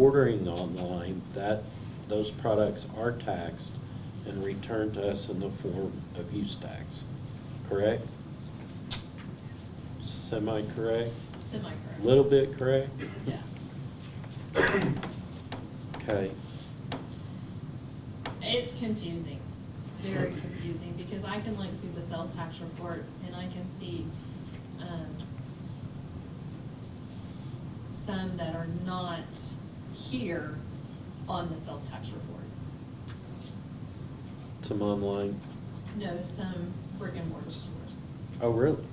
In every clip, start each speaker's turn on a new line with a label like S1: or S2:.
S1: ordering online, that, those products are taxed and returned to us in the form of use tax, correct? Semi-correct?
S2: Semi-current.
S1: Little bit correct?
S2: Yeah.
S1: Okay.
S2: It's confusing, very confusing, because I can look through the sales tax reports and I can see, um, some that are not here on the sales tax report.
S1: Some online?
S2: No, some brick and mortar stores,
S1: Oh, really?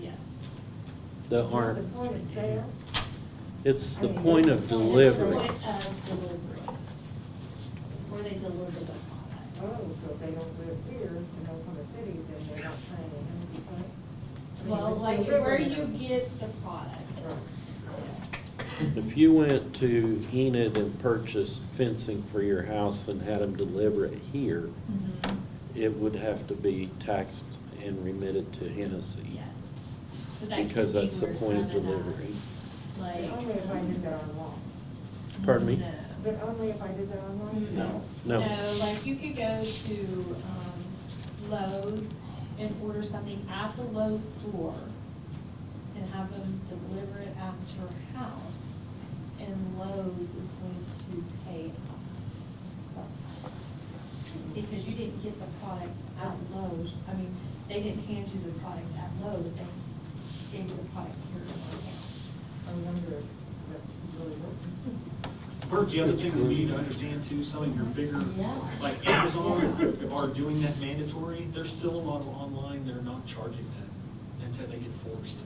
S2: yes.
S1: That
S3: Not
S1: aren't?
S3: The point oh, of sale?
S1: It's
S3: I
S1: the
S3: mean,
S1: point
S3: the
S1: of
S3: point of
S1: delivery.
S2: Point of delivery, where they deliver the
S3: Oh,
S2: product.
S3: so if they don't live here, in Oklahoma City, then they're not paying any tax? I mean,
S2: Well,
S3: it's
S2: like
S3: delivered
S2: where
S3: in
S2: you
S3: a-
S2: get the product.
S3: Right.
S2: Yes.
S1: If you went to Enid and purchased fencing for your house and had them deliver it here,
S2: Mhm.
S1: it would have to be taxed and remitted to Hennessy.
S2: Yes. So that could
S1: Because
S2: be
S1: that's the
S2: where
S1: point of
S2: some that,
S1: delivery.
S3: But
S2: Like. um,
S3: Only if I did that online.
S1: Pardon me?
S2: no.
S3: But only if I did that online?
S1: No. No.
S2: No, like you could go to, um, Lowe's and order something at the Lowe's store and have them deliver it at your house, and Lowe's is going to pay us sales tax. Because you didn't get the product at Lowe's, I mean, they didn't hand you the product at Lowe's, they gave you the product here in our
S3: I wonder if that really worked.
S4: Bert, the other thing we need to understand too, some of your bigger,
S2: Yeah.
S4: like Amazon are doing that mandatory, they're still on, online, they're not charging that until they get forced.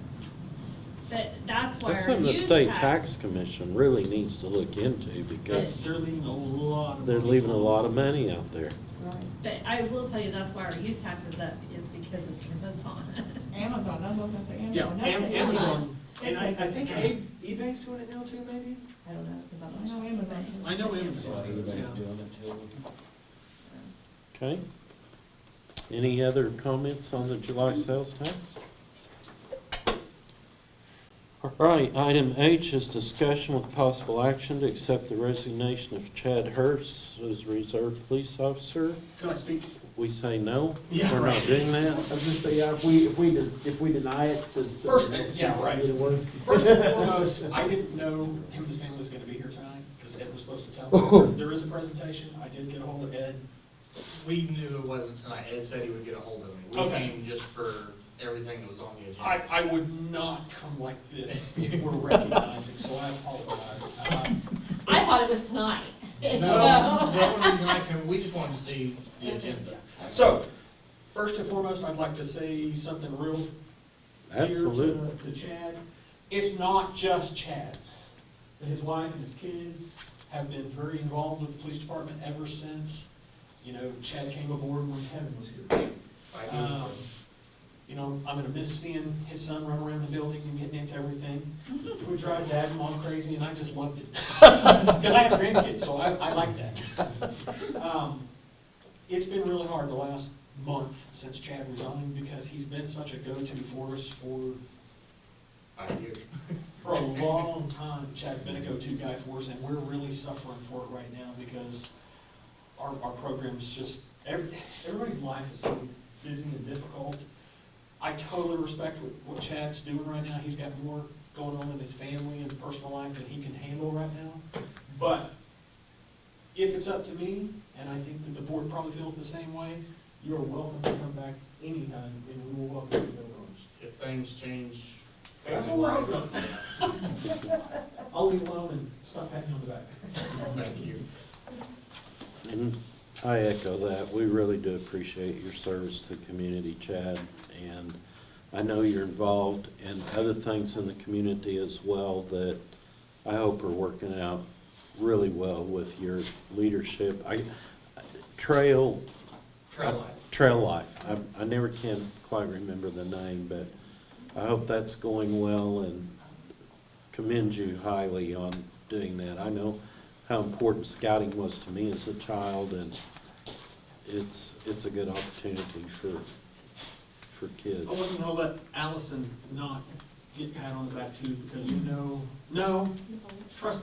S2: But that's why
S1: That's
S2: our
S1: something the
S2: use
S1: state
S2: tax.
S1: tax commission really needs to look into because
S4: They're leaving a lot of.
S1: they're
S4: money.
S1: leaving a lot of money out there.
S3: Right.
S2: But I will tell you, that's why our use tax is up, is because of Amazon.
S5: Amazon, I'm looking for
S4: Yeah,
S5: Amazon. That's
S4: Am-
S5: the-
S4: Amazon,
S5: that's
S4: and I,
S5: like-
S4: I think A- eBay's doing it now too, maybe?
S2: I don't know, because
S5: I know Amazon.
S4: I know Amazon is, yeah.
S1: Okay? Any other comments on the July sales tax? All right, item H is discussion with possible action to accept the resignation of Chad Hurst as reserve police officer.
S4: Can I speak?
S1: We say no,
S4: Yeah,
S1: we're not
S4: right.
S1: doing that.
S6: I was just saying, yeah, if we, if we, de- if we deny it, does.
S4: First, yeah, right.
S6: It'll work.
S4: First and foremost, I didn't know him and his family was gonna be here tonight, because Ed was supposed to tell me. There is a presentation, I did get a hold of Ed.
S7: We knew it wasn't tonight, Ed said he would get a hold of me. We
S4: Okay.
S7: came just for everything that was on the
S4: I,
S7: agenda.
S4: I would not come like this if we're recognizing, so I apologize. Uh,
S2: I thought it was tonight. And
S7: No,
S2: so-
S7: the only reason I came, we just wanted to see the agenda.
S4: So, first and foremost, I'd like to say something real dear
S1: Absolutely.
S4: to to Chad. It's not just Chad. His wife and his kids have been very involved with the police department ever since, you know, Chad came aboard when Kevin was here.
S7: I
S4: Uh,
S7: do.
S4: You know, I'm gonna miss seeing his son run around the building and getting into everything. We drive dad and mom crazy, and I just loved it. Because I have grandkids, so I, I like that. Um, It's been really hard the last month since Chad resigned, because he's been such a go-to for us for,
S7: I do.
S4: for a long time. Chad's been a go-to guy for us, and we're really suffering for it right now, because our, our program's just, every, everybody's life is so busy and difficult. I totally respect what, what Chad's doing right now, he's got more going on in his family and personal life than he can handle right now. But if it's up to me, and I think that the board probably feels the same way, you're welcome to come back anytime, and we will welcome you to the rooms.
S7: If things change.
S4: That's all right. I'll leave alone and stop patting you on the back.
S7: Thank you.
S1: And I echo that. We really do appreciate your service to the community, Chad. And I know you're involved in other things in the community as well that I hope are working out really well with your leadership. I, Trail,
S7: Try life.
S1: Trail Life, I, I never can quite remember the name, but I hope that's going well and commend you highly on doing that. I know how important scouting was to me as a child, and it's, it's a good opportunity for, for kids.
S4: I wasn't gonna let Allison not get pat on the back too, because you know, no, trust